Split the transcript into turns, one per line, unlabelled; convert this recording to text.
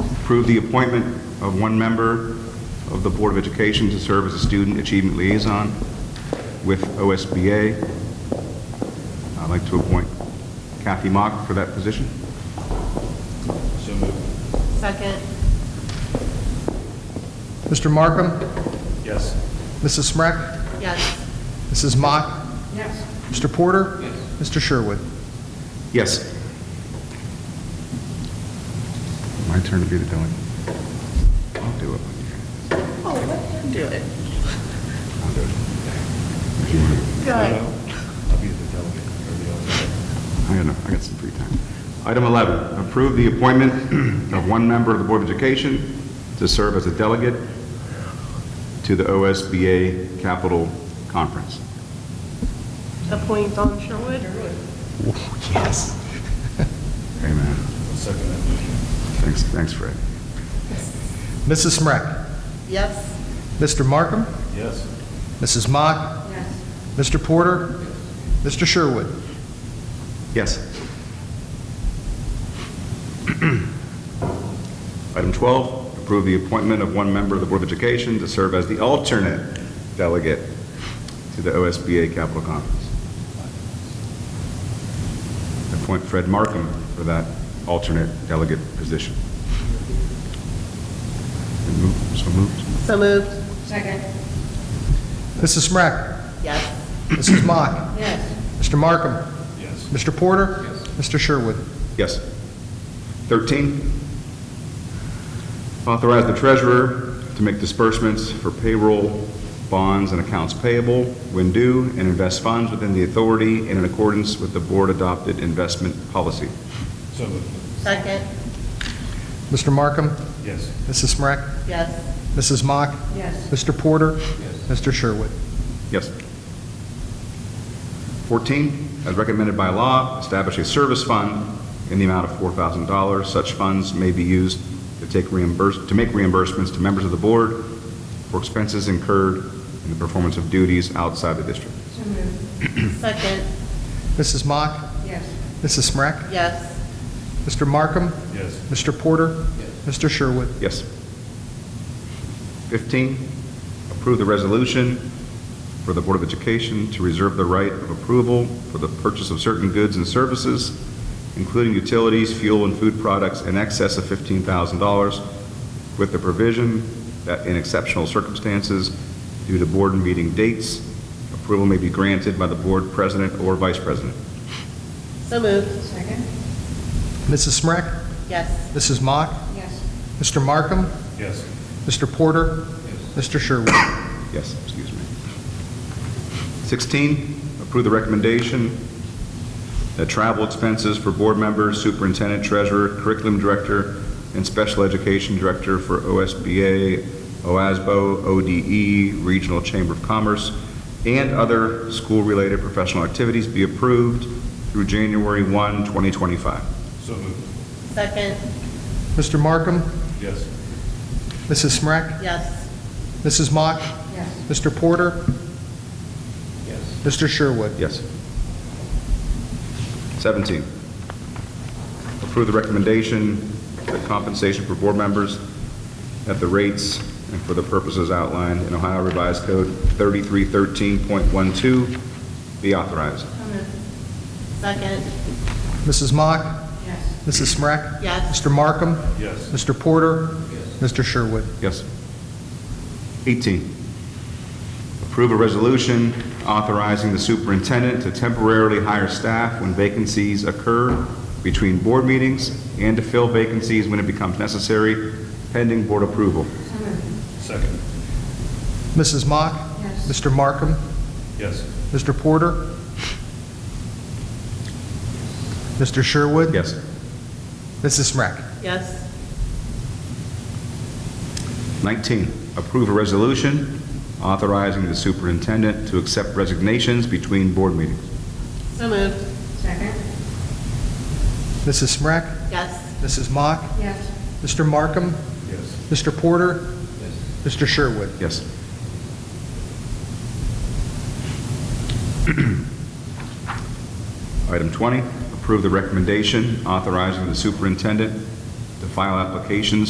Approve the appointment of one member of the Board of Education to serve as a Student Achievement Liaison with OSBA. I'd like to appoint Kathy Mock for that position.
So moved.
Second.
Mr. Markham,
Yes.
Mrs. Smrek,
Yes.
Mrs. Mock,
Yes.
Mr. Porter,
Yes.
Mr. Sherwood.
Yes. My turn to be the delegate. I'll do it.
Oh, let him do it.
I'll do it.
Good.
I'll be the delegate or the alternate.
I got, I got some free time. Item 11, approve the appointment of one member of the Board of Education to serve as a delegate to the OSBA Capital Conference.
Appoint Dawn Sherwood.
Yes.
Amen.
I'll Second that motion.
Thanks, thanks, Fred.
Mrs. Smrek,
Yes.
Mr. Markham,
Yes.
Mrs. Mock,
Yes.
Mr. Porter, Mr. Sherwood.
Yes. Item 12, approve the appointment of one member of the Board of Education to serve as the alternate delegate to the OSBA Capital Conference. Appoint Fred Markham for that alternate delegate position. Move- So moved.
So moved. Second.
Mrs. Smrek,
Yes.
Mrs. Mock,
Yes.
Mr. Markham,
Yes.
Mr. Porter,
Yes.
Mr. Sherwood.
Yes. 13, authorize the treasurer to make disbursements for payroll, bonds, and accounts payable when due, and invest funds within the authority and in accordance with the board-adopted investment policy.
So moved.
Second.
Mr. Markham,
Yes.
Mrs. Smrek,
Yes.
Mrs. Mock,
Yes.
Mr. Porter,
Yes.
Mr. Sherwood.
Yes. 14, as recommended by law, establish a service fund in the amount of $4,000. Such funds may be used to take reimburse, to make reimbursements to members of the board for expenses incurred in the performance of duties outside the district.
Second.
Mrs. Mock,
Yes.
Mrs. Smrek,
Yes.
Mr. Markham,
Yes.
Mr. Porter, Mr. Sherwood.
Yes. 15, approve the resolution for the Board of Education to reserve the right of approval for the purchase of certain goods and services, including utilities, fuel, and food products in excess of $15,000, with the provision that in exceptional circumstances, due to board meeting dates, approval may be granted by the board president or vice president.
So moved. Second.
Mrs. Smrek,
Yes.
Mrs. Mock,
Yes.
Mr. Markham,
Yes.
Mr. Porter, Mr. Sherwood.
Yes, excuse me. 16, approve the recommendation that travel expenses for board members, superintendent, treasurer, curriculum director, and special education director for OSBA, OASBO, ODE, E, Regional Chamber of Commerce, and other school-related professional activities be approved through January 1, 2025.
So moved.
Second.
Mr. Markham,
Yes.
Mrs. Smrek,
Yes.
Mrs. Mock,
Yes.
Mr. Porter,
Yes.
Mr. Sherwood.
Yes. 17, approve the recommendation that compensation for board members at the rates and for the purposes outlined in Ohio Revised Code 3313.12 be authorized.
Second.
Mrs. Mock,
Yes.
Mrs. Smrek,
Yes.
Mr. Markham,
Yes.
Mr. Porter, Mr. Sherwood.
Yes. 18, approve a resolution authorizing the superintendent to temporarily hire staff when vacancies occur between board meetings and to fill vacancies when it becomes necessary, pending board approval.
Second.
Mrs. Mock, Mr. Markham,
Yes.
Mr. Porter, Mr. Sherwood.
Yes.
Mrs. Smrek.
Yes.
19, approve a resolution authorizing the superintendent to accept resignations between board meetings.
So moved. Second.
Mrs. Smrek,
Yes.
Mrs. Mock,
Yes.
Mr. Markham,
Yes.
Mr. Porter, Mr. Sherwood.
Yes. Item 20, approve the recommendation authorizing the superintendent to file applications